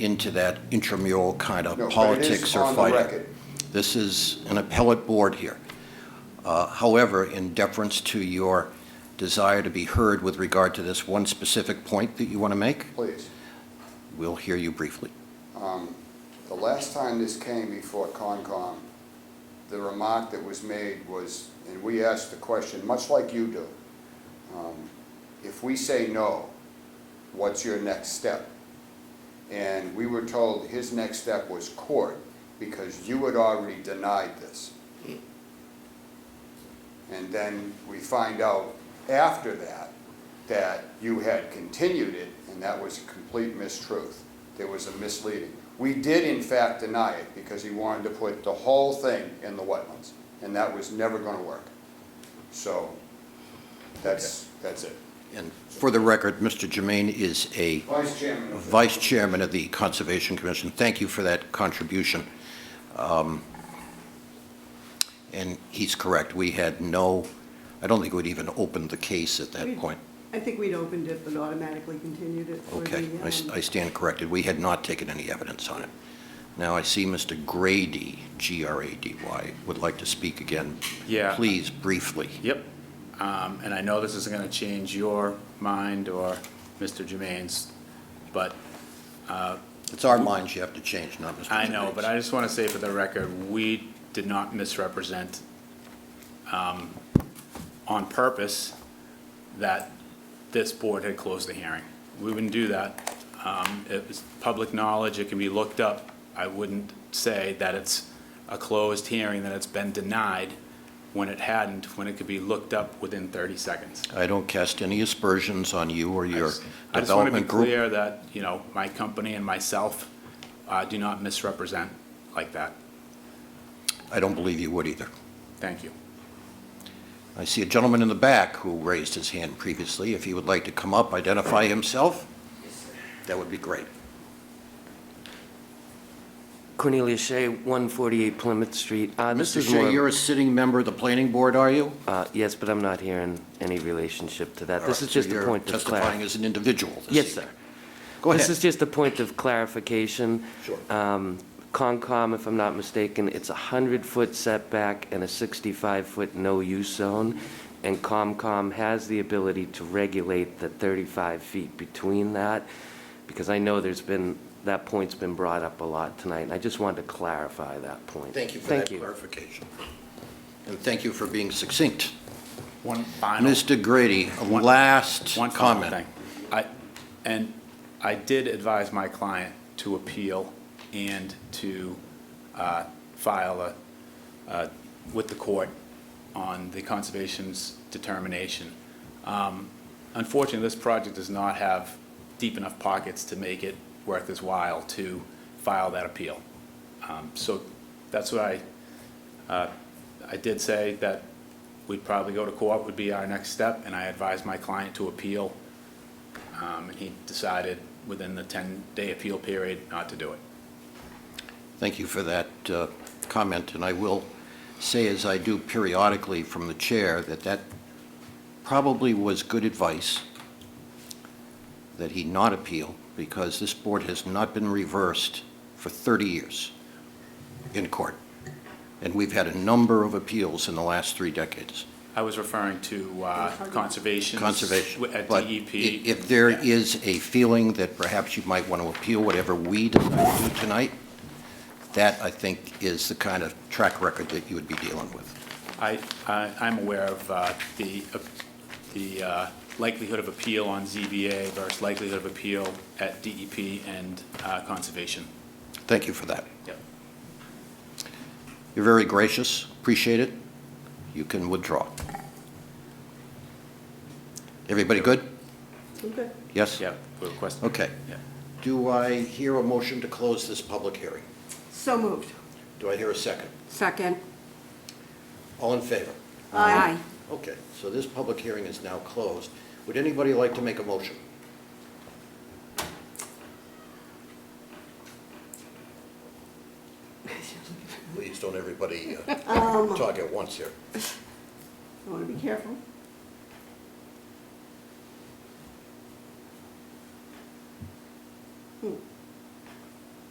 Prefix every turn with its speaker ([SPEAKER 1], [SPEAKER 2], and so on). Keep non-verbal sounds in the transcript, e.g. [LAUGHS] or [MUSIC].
[SPEAKER 1] into that intramural kind
[SPEAKER 2] No,
[SPEAKER 1] of
[SPEAKER 2] but it
[SPEAKER 1] politics
[SPEAKER 2] is
[SPEAKER 1] or
[SPEAKER 2] on the
[SPEAKER 1] fighting.
[SPEAKER 2] record.
[SPEAKER 1] This is an appellate board here. Uh, However, in deference to your desire to be heard with regard to this one specific point that you want to make,
[SPEAKER 2] Please.
[SPEAKER 1] we'll hear you briefly.
[SPEAKER 2] Um, The last time this came before Concom, the remark that was made was, and we asked the question, much like you do, um, if we say no, what's your next step? And we were told his next step was court, because you had already denied this. And then we find out after that, that you had continued it, and that was a complete mistruth. There was a misleading. We did in fact deny it, because he wanted to put the whole thing in the wetlands, and that was never gonna work. So, that's, that's it.
[SPEAKER 1] And for the record, Mr. Jermaine is a
[SPEAKER 2] Vice Chairman.
[SPEAKER 1] Vice Chairman of the Conservation Commission. Thank you for that contribution. Um, And he's correct, we had no, I don't think we'd even opened the case at that
[SPEAKER 3] We-
[SPEAKER 1] point.
[SPEAKER 3] I think we'd opened it, but automatically continued it for the.
[SPEAKER 1] Okay, I s-
[SPEAKER 3] um,
[SPEAKER 1] I stand corrected, we had not taken any evidence on it. Now, I see Mr. Grady, G-R-A-D-Y, would like to speak again.
[SPEAKER 4] Yeah.
[SPEAKER 1] Please, briefly.
[SPEAKER 4] Yep. Um, And I know this isn't going to change your mind or Mr. Jermaine's, but
[SPEAKER 1] It's our minds you have to change, not Mr.
[SPEAKER 4] I know, but
[SPEAKER 1] Jermaine's.
[SPEAKER 4] I just want to say for the record, we did not misrepresent um, on purpose that this board had closed the hearing. We wouldn't do that. Um, It was public knowledge, it can be looked up. I wouldn't say that it's a closed hearing, that it's been denied, when it hadn't, when it could be looked up within 30 seconds.
[SPEAKER 1] I don't cast any aspersions on you or
[SPEAKER 4] I
[SPEAKER 1] your
[SPEAKER 4] just- I just want to be
[SPEAKER 1] development group.
[SPEAKER 4] clear that, you know, my company and myself uh, do not misrepresent like that.
[SPEAKER 1] I don't believe you would either.
[SPEAKER 4] Thank you.
[SPEAKER 1] I see a gentleman in the back who raised his hand previously. If he would like to come up, identify himself, that would be great.
[SPEAKER 5] Cornelius Shea, 148 Plymouth Street. Uh, this
[SPEAKER 1] Mr.
[SPEAKER 5] is
[SPEAKER 1] Shea,
[SPEAKER 5] more-
[SPEAKER 1] you're a sitting member of the planning board, are you?
[SPEAKER 5] Uh, Yes, but I'm not here in any relationship to that.
[SPEAKER 1] All
[SPEAKER 5] This
[SPEAKER 1] right,
[SPEAKER 5] is
[SPEAKER 1] so
[SPEAKER 5] just a
[SPEAKER 1] you're
[SPEAKER 5] point of
[SPEAKER 1] Testifying
[SPEAKER 5] clarification.
[SPEAKER 1] as an individual this
[SPEAKER 5] Yes, sir.
[SPEAKER 1] evening. Go
[SPEAKER 5] This is
[SPEAKER 1] ahead.
[SPEAKER 5] just a point of clarification.
[SPEAKER 1] Sure.
[SPEAKER 5] Um, Concom, if I'm not mistaken, it's a 100-foot setback and a 65-foot no-use zone, and Comcom has the ability to regulate the 35 feet between that, because I know there's been, that point's been brought up a lot tonight, and I just wanted to clarify that point.
[SPEAKER 1] Thank you for that
[SPEAKER 5] Thank you.
[SPEAKER 1] clarification. And thank you for being succinct.
[SPEAKER 4] One final,
[SPEAKER 1] Mr. Grady, a
[SPEAKER 4] One-
[SPEAKER 1] last
[SPEAKER 4] one final thing.
[SPEAKER 1] comment.
[SPEAKER 4] I, and I did advise my client to appeal and to uh, file a, uh, with the court on the conservation's determination. Um, Unfortunately, this project does not have deep enough pockets to make it worth his while to file that appeal. Um, So that's what I I did say that we'd probably go to court would be our next step, and I advised my client to appeal. Um, and he decided within the ten-day appeal period not to do it.
[SPEAKER 1] Thank you for that uh, comment, and I will say, as I do periodically from the chair, that that probably was good advice, that he not appeal, because this board has not been reversed for 30 years in court, and we've had a number of appeals in the last three decades.
[SPEAKER 4] I was referring to, uh, conservation.
[SPEAKER 1] Conservation.
[SPEAKER 4] At E
[SPEAKER 1] But
[SPEAKER 4] DEP.
[SPEAKER 1] i- If there
[SPEAKER 4] Yeah.
[SPEAKER 1] is a feeling that perhaps you might want to appeal whatever we decide to do tonight, that, I think, is the kind of track record that you would be dealing with.
[SPEAKER 4] I, I, I'm aware of, uh, the, the uh, likelihood of appeal on ZBA versus likelihood of appeal at DEP and, uh, conservation.
[SPEAKER 1] Thank you for that.
[SPEAKER 4] Yep.
[SPEAKER 1] You're very gracious, appreciate it. You can withdraw. Everybody good?
[SPEAKER 3] Okay.
[SPEAKER 1] Yes?
[SPEAKER 4] Yep, we request.
[SPEAKER 1] Okay.
[SPEAKER 4] Yeah.
[SPEAKER 1] Do I hear a motion to close this public hearing?
[SPEAKER 3] So moved.
[SPEAKER 1] Do I hear a second?
[SPEAKER 6] Second.
[SPEAKER 1] All in favor?
[SPEAKER 6] Aye.
[SPEAKER 1] Okay, so this public hearing is now closed. Would anybody like to make a motion? Please, don't everybody uh, talk at once here.
[SPEAKER 3] [LAUGHS] I want to be careful.